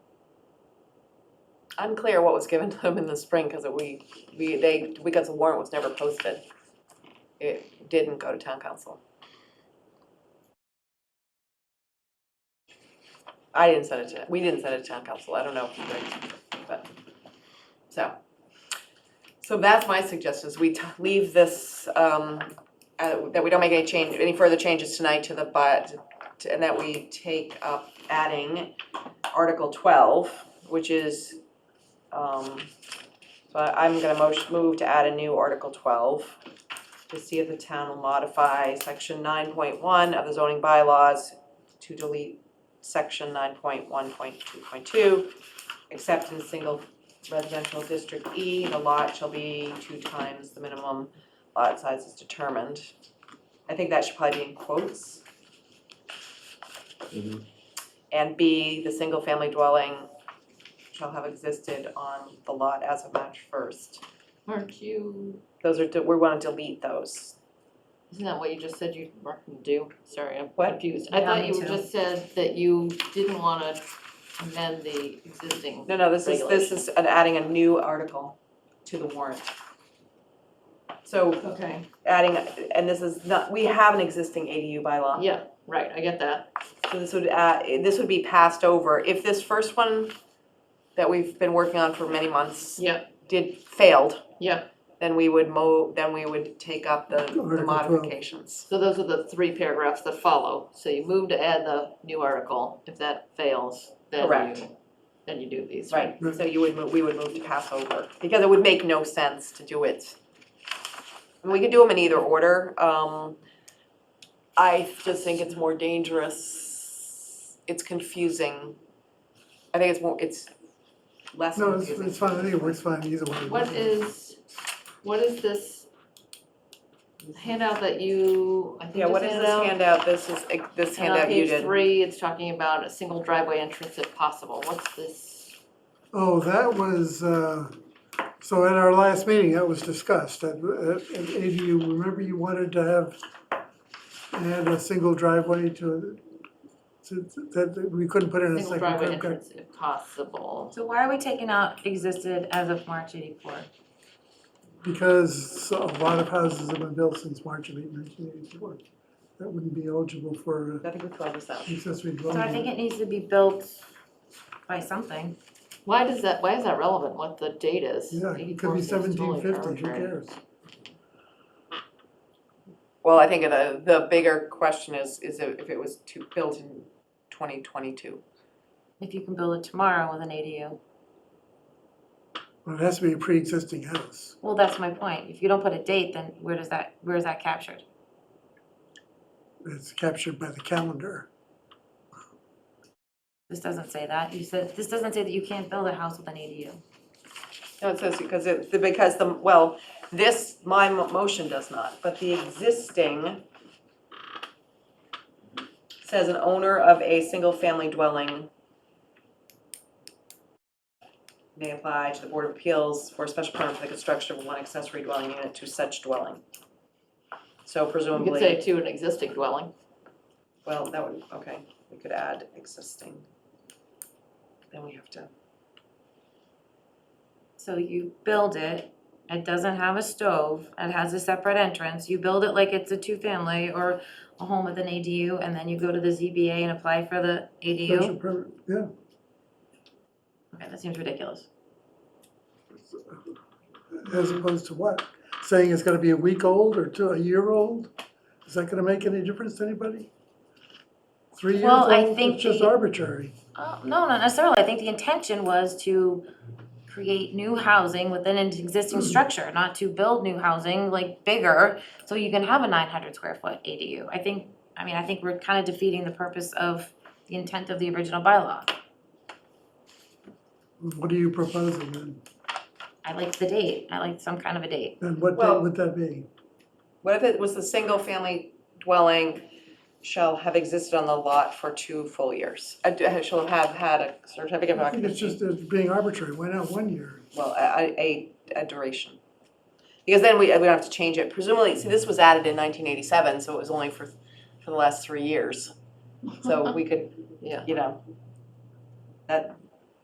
unclear what was given to them in the spring, because we, we, they, because the warrant was never posted. It didn't go to town council. I didn't send it to, we didn't send it to town council, I don't know if you did, but, so. So that's my suggestion, is we t- leave this, um, uh, that we don't make any change, any further changes tonight to the, but, and that we take up adding Article twelve, which is, um, so I- I'm gonna motion, move to add a new Article twelve to see if the town will modify section nine point one of the zoning bylaws to delete section nine point one point two point two, except in single residential district E, the lot shall be two times the minimum lot size is determined. I think that should probably be in quotes. Mhm. And B, the single-family dwelling shall have existed on the lot as of March first. Aren't you, Those are, we wanna delete those. isn't that what you just said you were gonna do? Sorry, I'm What? confused. I Yeah, thought me you too. just said that you didn't wanna amend the existing. No, no, this is, this is an- adding a new article to the warrant. So Okay. adding, and this is not, we have an existing ADU bylaw. Yeah, right, I get that. So this would, add- this would be passed over. If this first one that we've been working on for many months Yeah. did, failed. Yeah. Then we would mo, then we would take up the the Article twelve. modifications. So those are the three paragraphs that follow. So you move to add the new article. If that fails, then Correct. you, then you do these, right? Right, Mm-hmm. so you would, mo- we would move to pass over, because it would make no sense to do it. And we could do them in either order, um, I just think it's more dangerous, it's confusing. I think it's more, it's less No, it's, it's confusing. fine, I think it works fine either way. What is, what is this handout that you, I think Yeah, just what is handed this out? handout, this is, this And on handout you page did, three, it's talking about a single driveway entrance if possible. What's this? Oh, that was, uh, so at our last meeting, that was discussed, that, uh, and Amy, you remember you wanted to have, add a single driveway to, to, that, that we couldn't put in a Single second driveway curb cut? entrance if possible. So why are we taking out existed as of March eighty-four? Because a lot of houses have been built since March of nineteen eighty-four, that wouldn't be eligible for I think we throw this out. accessory So I think dwelling. it needs to be built by something. Why does that, why is that relevant, what the date is? Yeah, it 84 could be seems totally seventeen fifty, who arbitrary. cares? Well, I think the, the bigger question is, is if it was to, built in twenty twenty-two. If you can build it tomorrow with an ADU. Well, it has to be a pre-existing house. Well, that's my point. If you don't put a date, then where does that, where is that captured? It's captured by the calendar. This doesn't say that. You said, this doesn't say that you can't build a house with an ADU. No, it says because it, because the, well, this, my mo- motion does not, but the existing says an owner of a single-family dwelling may apply to the Board of Appeals for a special permit for the construction of one accessory dwelling unit to such dwelling. So You could say presumably, to an existing dwelling. well, that would, okay, we could add existing. Then we have to, So you build it, it doesn't have a stove, it has a separate entrance, you build it like it's a two-family or a home with an ADU, and then you go to the ZBA and apply for the Special ADU? permit, yeah. Okay, that seems ridiculous. As opposed to what? Saying it's gonna be a week old or two, a year old? Is that gonna make any difference to anybody? Three years Well, I old, think it's just the- arbitrary. Uh, no, not necessarily, I think the intention was to create new housing within an existing structure, not to build new housing like bigger, so you can have a nine hundred square foot ADU. I think, I mean, I think we're kind of defeating the purpose of the intent of the original bylaw. What are you proposing then? I like the date, I like some kind of a date. And what date Well- would that be? What if it was the single-family dwelling shall have existed on the lot for two full years? Uh, d- uh, Shall have had a certificate of I think it's occupancy, just it's being arbitrary. Why not one year? well, a, a, a duration. Because then we, we don't have to change it. Presumably, see, this was added in nineteen eighty-seven, so it was only for, for the last three years. So we could, Yeah. you know, that,